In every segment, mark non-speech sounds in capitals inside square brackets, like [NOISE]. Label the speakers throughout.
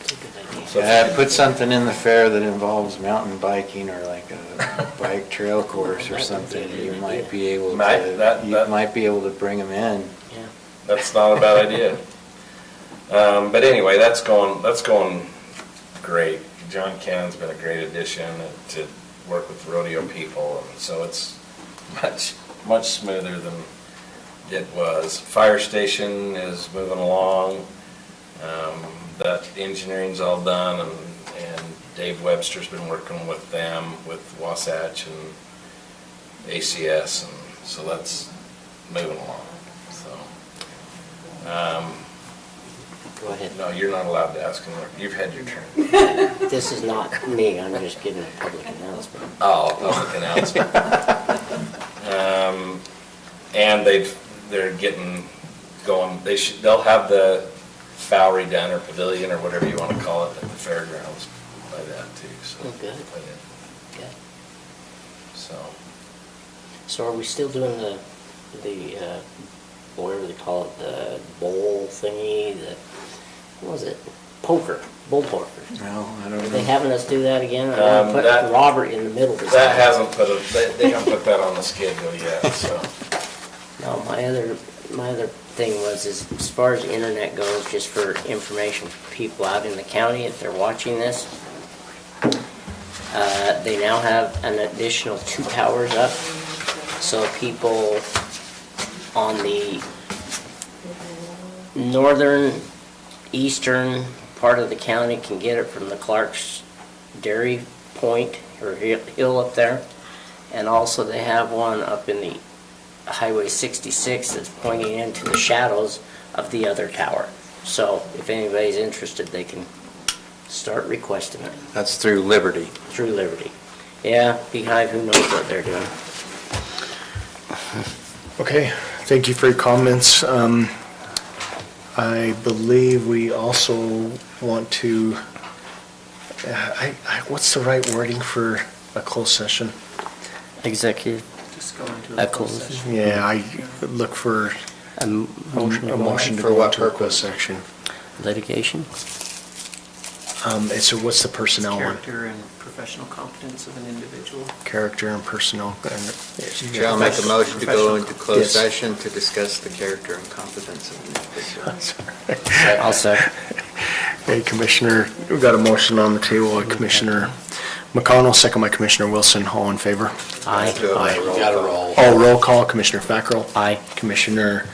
Speaker 1: uh,
Speaker 2: Yeah, put something in the fair that involves mountain biking or like a
Speaker 1: [LAUGHS]
Speaker 2: bike trail course or something. You might be able
Speaker 1: Might,
Speaker 2: to,
Speaker 1: that-
Speaker 2: you
Speaker 1: that-
Speaker 2: might be able to bring them in.
Speaker 3: Yeah.
Speaker 1: That's not a bad idea. Um, but anyway, that's going, that's going great. John Cannon's been a great addition to work with rodeo people, and so it's much, much smoother than it was. Fire station is moving along. Um, that engineering's all done, and, and Dave Webster's been working with them, with Wasatch and ACS, and so that's moving along, so. Um,
Speaker 3: Go ahead.
Speaker 1: no, you're not allowed to ask him. You've had your turn.
Speaker 3: This is not me, I'm just giving a public announcement.
Speaker 1: Oh,
Speaker 3: [LAUGHS]
Speaker 1: public announcement. Um, and they've, they're getting going, they should, they'll have the Bowery Den or Pavilion or whatever you wanna call it at the fairgrounds by that too, so.
Speaker 3: Oh, good.
Speaker 1: by then.
Speaker 3: Okay.
Speaker 1: So,
Speaker 3: So are we still doing the, the, uh, whatever they call it, the bowl thingy, the, what was it? Poker, bowl poker.
Speaker 2: No, I
Speaker 3: Are
Speaker 2: don't
Speaker 3: they
Speaker 2: know.
Speaker 3: having us do that again? I'm
Speaker 1: Um,
Speaker 3: gonna
Speaker 1: that-
Speaker 3: put Robert in the middle this
Speaker 1: that
Speaker 3: time.
Speaker 1: hasn't put a, they, they haven't put that on the schedule yet, so.
Speaker 3: No, my other, my other thing was, is as far as the internet goes, just for information for people out in the county, if they're watching this, uh, they now have an additional two towers up, so people on the northern, eastern part of the county can get it from the Clark's Dairy Point or hi- hill up there. And also they have one up in the Highway 66 that's pointing into the shadows of the other tower. So if anybody's interested, they can start requesting it
Speaker 2: That's through Liberty.
Speaker 3: through Liberty. Yeah, Beehive, who knows what they're doing.
Speaker 4: Okay, thank you for your comments. Um, I believe we also want to, uh, I, I, what's the right wording for a closed session?
Speaker 3: Executive.
Speaker 5: Just go into
Speaker 3: A
Speaker 5: a
Speaker 3: closed
Speaker 5: closed session.
Speaker 4: Yeah, I look for
Speaker 3: A
Speaker 4: a motion to
Speaker 2: For what
Speaker 4: go into a
Speaker 2: purpose?
Speaker 4: closed section.
Speaker 3: Litigation?
Speaker 4: Um, and so what's the personnel one?
Speaker 5: Character and professional competence of an individual.
Speaker 4: Character and personnel. and-
Speaker 2: Chair, I'll make a motion to go into closed
Speaker 4: Yes.
Speaker 2: session to discuss the character and competence of an individual.
Speaker 3: I'll second.
Speaker 4: Hey, Commissioner, we've got a motion on the table, Commissioner McConnell, second by Commissioner Wilson, all in favor?
Speaker 2: Let's do
Speaker 3: Aye.
Speaker 2: it.
Speaker 4: Aye.
Speaker 2: We Gotta roll.
Speaker 4: Oh, roll call, Commissioner Fackrell.
Speaker 3: Aye.
Speaker 4: Commissioner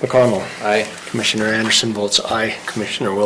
Speaker 4: McConnell.
Speaker 2: Aye.
Speaker 4: Commissioner Anderson votes aye. Commissioner Wilson